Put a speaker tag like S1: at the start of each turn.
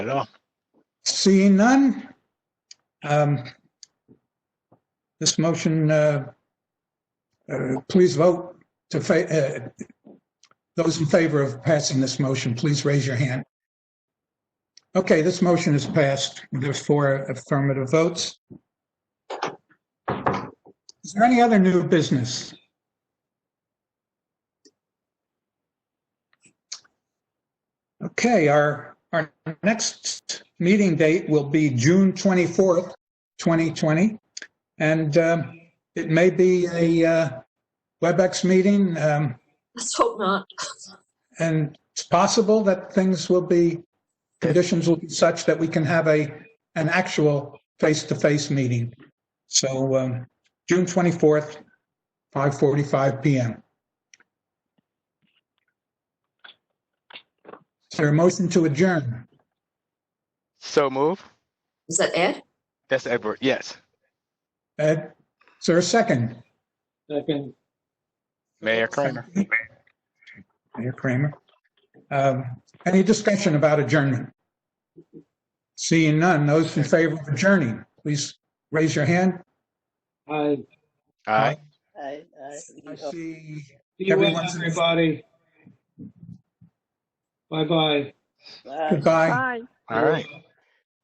S1: at all.
S2: Seeing none, um, this motion, uh, uh, please vote to, fa- uh, those in favor of passing this motion, please raise your hand. Okay, this motion is passed. There's four affirmative votes. Is there any other new business? Okay, our, our next meeting date will be June 24th, 2020. And um, it may be a uh, WebEx meeting. um,
S3: Let's hope not.
S2: And it's possible that things will be, conditions will be such that we can have a, an actual face-to-face meeting. So um, June 24th, 5:45 PM. Is there a motion to adjourn?
S1: So move.
S3: Is that Ed?
S1: That's Edward. Yes.
S2: Ed, is there a second?
S4: Second,
S1: Mayor Kramer.
S2: Mayor Kramer. Um, Any discussion about adjournment? Seeing none, those in favor of adjourning, please raise your hand.
S4: I
S1: Aye.
S5: I, I,
S2: I see,
S4: see you,
S2: Everyone's-
S4: everybody. Bye-bye.
S5: uh,
S2: goodbye.
S6: Bye.
S1: All right.